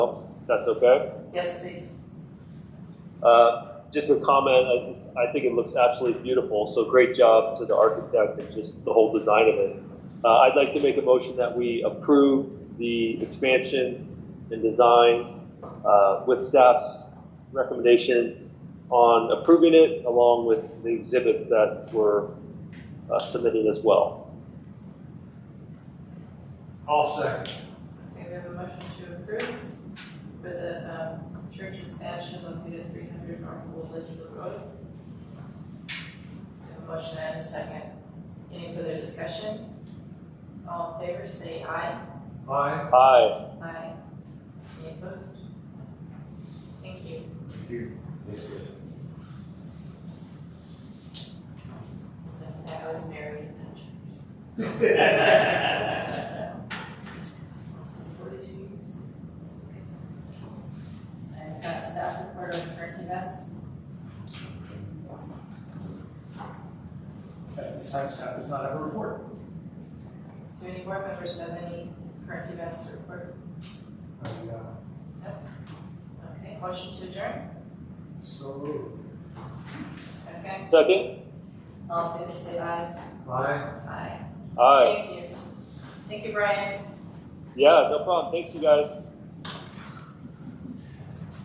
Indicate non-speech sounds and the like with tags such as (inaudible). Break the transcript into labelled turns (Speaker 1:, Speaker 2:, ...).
Speaker 1: that's okay.
Speaker 2: Yes, please.
Speaker 1: Uh, Just a comment, I, I think it looks absolutely beautiful, so great job to the architect and just the whole design of it. Uh, I'd like to make a motion that we approve the expansion and design uh, with staff's recommendation on approving it along with the exhibits that were uh, submitted as well.
Speaker 3: I'll second.
Speaker 2: Okay, we have a motion to approve for the, um, church expansion located at three hundred North Old Litchfield Road. We have a motion and a second. Any further discussion? All in favor, say aye.
Speaker 3: Aye.
Speaker 1: Aye,
Speaker 2: Aye. Any opposed? Thank you. So that was (laughs) Mary. Lost in forty-two years. That's okay. I've got staff report on current events.
Speaker 4: At this time, staff does not have a report.
Speaker 2: Do any board members have any current events to report?
Speaker 3: And, uh,
Speaker 2: Okay, motion to adjourn,
Speaker 3: so moved.
Speaker 2: second.
Speaker 1: second?
Speaker 2: All in favor, say aye.
Speaker 3: Aye.
Speaker 2: Aye.
Speaker 1: Aye,
Speaker 2: Thank you. Thank you, Brian.
Speaker 1: yeah, no problem, thanks you guys.